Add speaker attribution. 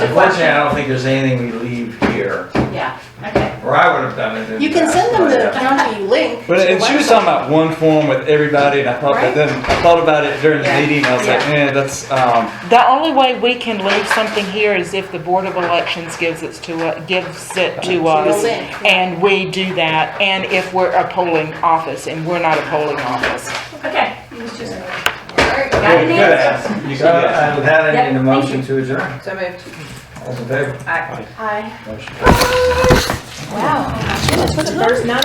Speaker 1: Unfortunately, I don't think there's anything we leave here,
Speaker 2: Yeah, okay.
Speaker 1: or I would have done it. in
Speaker 2: You can send them the county link.
Speaker 3: But
Speaker 2: to the
Speaker 3: and she was
Speaker 2: website.
Speaker 3: talking about one form with everybody, and I thought
Speaker 2: Right.
Speaker 3: that then I thought about it during the
Speaker 2: Yeah.
Speaker 3: meeting. I was like,
Speaker 2: Yeah.
Speaker 3: man, that's um,
Speaker 4: The only way we can leave something here is if the Board of Elections gives it to, u- gives it to us.
Speaker 2: link, yeah.
Speaker 4: And we do that, and if we're a polling office, and we're not a polling office.
Speaker 5: Okay, it was just.
Speaker 1: Good,
Speaker 5: Got
Speaker 1: good
Speaker 5: an
Speaker 1: Oh, ask.
Speaker 5: answer?
Speaker 1: So, uh, without
Speaker 5: Yep,
Speaker 1: any
Speaker 5: thank
Speaker 1: motion to adjourn,
Speaker 6: So moved.
Speaker 1: all in favor?
Speaker 5: Hi.
Speaker 1: Motion carries.
Speaker 2: Wow. Goodness, what a first night.